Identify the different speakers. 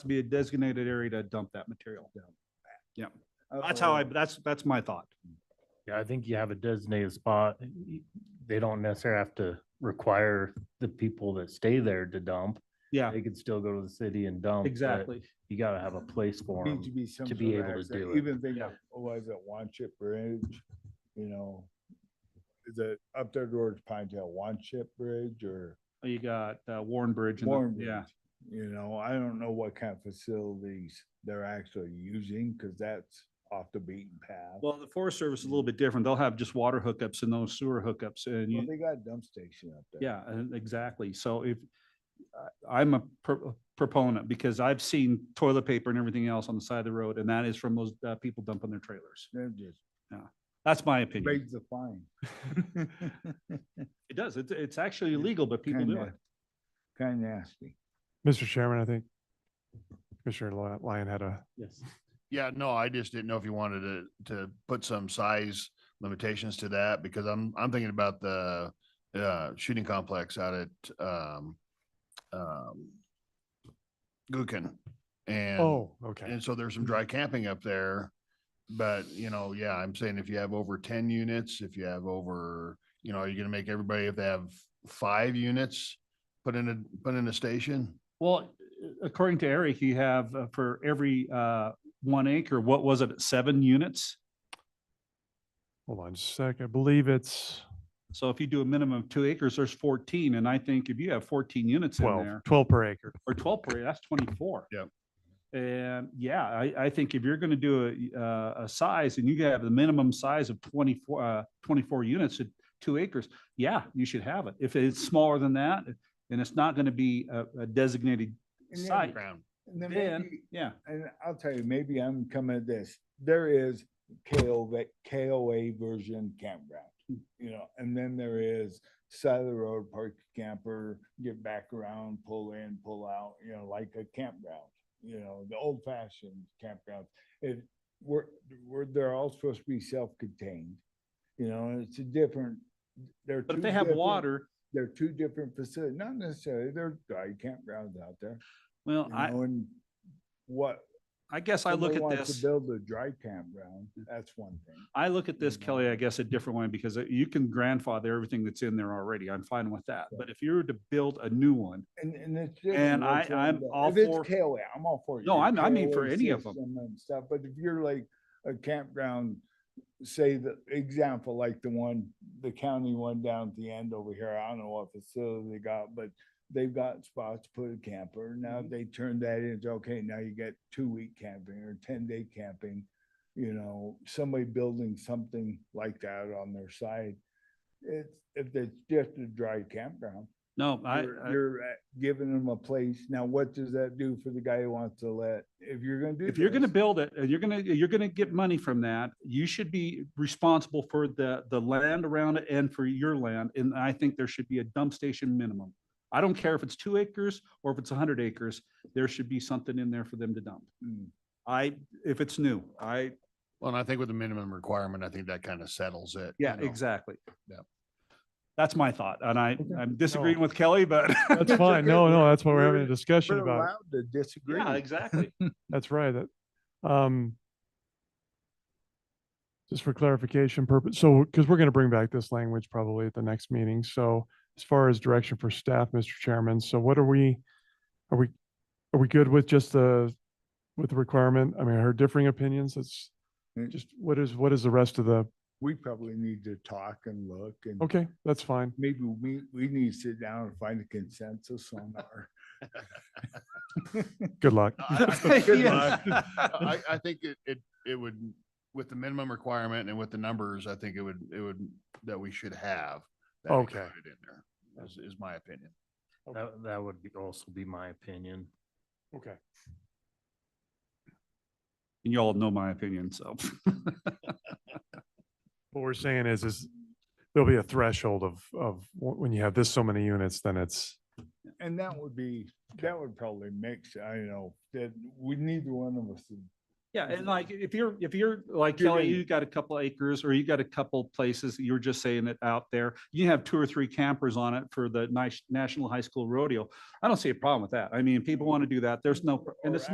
Speaker 1: to be a designated area to dump that material. Yeah, that's
Speaker 2: Oh.
Speaker 1: how I, that's, that's my thought.
Speaker 3: Yeah, I think you have a designated spot. y- They don't necessarily have to require the people that stay there to dump.
Speaker 1: Yeah,
Speaker 3: They could still go to the city and dump. but
Speaker 1: exactly.
Speaker 3: You gotta have a place for
Speaker 2: Need to
Speaker 3: them.
Speaker 2: be some
Speaker 3: to
Speaker 2: sort
Speaker 3: be
Speaker 2: of
Speaker 3: able to
Speaker 2: access,
Speaker 3: do it.
Speaker 2: Even oh, things
Speaker 1: Yeah.
Speaker 2: was at One Chip Bridge, you know, is it up there towards Pine Tail, One Chip Bridge or
Speaker 1: You got uh, Warren Bridge. and the-
Speaker 2: Warren
Speaker 1: Yeah,
Speaker 2: Bridge? You know, I don't know what kind of facilities they're actually using because that's off the beaten path. Well,
Speaker 1: well, the Forest Service is a little bit different. They'll have just water hookups and those sewer hookups and you,
Speaker 2: they got a dump station up there.
Speaker 1: Yeah, uh, exactly. So if, I- I'm a pro- proponent because I've seen toilet paper and everything else on the side of the road and that is from those uh, people dumping their trailers.
Speaker 2: They're just
Speaker 1: That's my opinion.
Speaker 2: raise the fine.
Speaker 1: It does. It's, it's actually illegal, but people do it.
Speaker 2: Kinda- Kind of nasty.
Speaker 4: Mr. Chairman, I think Commissioner Lo- Lyon had a,
Speaker 3: Yes.
Speaker 5: Yeah, no, I just didn't know if you wanted to, to put some size limitations to that because I'm, I'm thinking about the, uh, shooting complex out at, um, um, Gookin and.
Speaker 4: oh, okay.
Speaker 5: And so there's some dry camping up there. But, you know, yeah, I'm saying if you have over ten units, if you have over, you know, are you gonna make everybody, if they have five units, put in a, put in a station?
Speaker 1: Well, according to Eric, you have uh, for every uh, one acre, what was it, seven units?
Speaker 4: Hold on just a sec. I believe it's
Speaker 1: So if you do a minimum of two acres, there's 14. And I think if you have 14 units in
Speaker 4: 12,
Speaker 1: there,
Speaker 4: 12 per acre.
Speaker 1: or twelve per acre, that's twenty-four.
Speaker 5: Yep.
Speaker 1: And yeah, I, I think if you're gonna do a, uh, a size and you have the minimum size of twenty-four, uh, twenty-four units at two acres, yeah, you should have it. If it's smaller than that, and it's not gonna be a, a designated
Speaker 2: And then-
Speaker 1: site,
Speaker 5: Ground.
Speaker 2: And then
Speaker 1: then,
Speaker 2: maybe-
Speaker 1: yeah,
Speaker 2: and I'll tell you, maybe I'm coming at this. There is KOA, KOA version campground, you know, and then there is side of the road, park your camper, get back around, pull in, pull out, you know, like a campground. You know, the old fashioned campground. It, we're, we're, they're all supposed to be self-contained. You know, and it's a different, they're.
Speaker 1: but
Speaker 2: two
Speaker 1: if they have
Speaker 2: different-
Speaker 1: water,
Speaker 2: They're two different facilities, not necessarily, there are dry campgrounds out there,
Speaker 1: well,
Speaker 2: you
Speaker 1: I,
Speaker 2: know, and what,
Speaker 1: I guess I look
Speaker 2: Somebody
Speaker 1: at
Speaker 2: wants
Speaker 1: this.
Speaker 2: To build a dry campground, that's one thing.
Speaker 1: I look at this,
Speaker 2: Mhm.
Speaker 1: Kelly, I guess a different way because uh, you can grandfather everything that's in there already. I'm fine with that. But if you were to build a new one,
Speaker 2: And, and it's.
Speaker 1: And
Speaker 2: different
Speaker 1: I-
Speaker 2: which one
Speaker 1: I'm
Speaker 2: though.
Speaker 1: all
Speaker 2: If it's
Speaker 1: for-
Speaker 2: KOA, I'm all for.
Speaker 1: No,
Speaker 2: your
Speaker 1: I'm- I mean for
Speaker 2: KOA
Speaker 1: any of 'em.
Speaker 2: system And stuff, but if you're like a campground, say the example, like the one, the county one down at the end over here, I don't know what facility they got, but they've got spots to put a camper. Now
Speaker 1: Mm-hmm.
Speaker 2: they turn that into, okay, now you get two week camping or ten day camping. You know, somebody building something like that on their side. It's, if it's just a dry campground,
Speaker 1: no, I.
Speaker 2: you're,
Speaker 1: I-
Speaker 2: you're uh, giving them a place. Now, what does that do for the guy who wants to let, if you're gonna do?
Speaker 1: if you're gonna
Speaker 2: this,
Speaker 1: build it, and you're gonna, you're gonna get money from that, you should be responsible for the, the land around it and for your land, and I think there should be a dump station minimum. I don't care if it's two acres or if it's hundred acres, there should be something in there for them to dump.
Speaker 2: mm,
Speaker 1: I, if it's new, I,
Speaker 5: Well, and I think with the minimum requirement, I think that kind of settles it. you
Speaker 1: yeah,
Speaker 5: know?
Speaker 1: exactly.
Speaker 5: Yep.
Speaker 1: That's my thought, and I,
Speaker 2: Okay.
Speaker 1: I'm disagreeing with Kelly, but.
Speaker 4: That's fine. No, no, that's what we're having a discussion
Speaker 2: We're
Speaker 4: about.
Speaker 2: allowed to disagree.
Speaker 1: Yeah, exactly.
Speaker 4: That's right. That, um, just for clarification purpose, so, because we're going to bring back this language probably at the next meeting. So as far as direction for staff, Mr. Chairman, so what are we, are we, are we good with just the, with the requirement? I mean, I heard differing opinions. It's
Speaker 2: Mm.
Speaker 4: just, what is, what is the rest of the,
Speaker 2: We probably need to talk and look and
Speaker 4: okay, that's fine.
Speaker 2: maybe we, we need to sit down and find a consensus on our.
Speaker 4: Good luck.
Speaker 5: I-
Speaker 2: Good
Speaker 1: Yeah.
Speaker 5: I, I think it, it, it would, with the minimum requirement and with the numbers, I think it would, it would, that we should have. that
Speaker 4: Okay.
Speaker 5: included In there, is, is my opinion.
Speaker 3: That, that would be- also be my opinion.
Speaker 4: Okay.
Speaker 1: And you all know my opinion, so.
Speaker 4: What we're saying is, is there'll be a threshold of, of wh- when you have this so many units, then it's,
Speaker 2: And that would be, that would probably mix, I know, that we, neither one of us would
Speaker 1: Yeah, and like, if you're, if you're, like
Speaker 2: You're
Speaker 1: Kelly,
Speaker 2: gonna-
Speaker 1: you got a couple acres or you got a couple places, you were just saying it out there. You have two or three campers on it for the nice National High School Rodeo. I don't see a problem with that. I mean, people want to do that. There's no, pr- and
Speaker 2: Or
Speaker 1: it's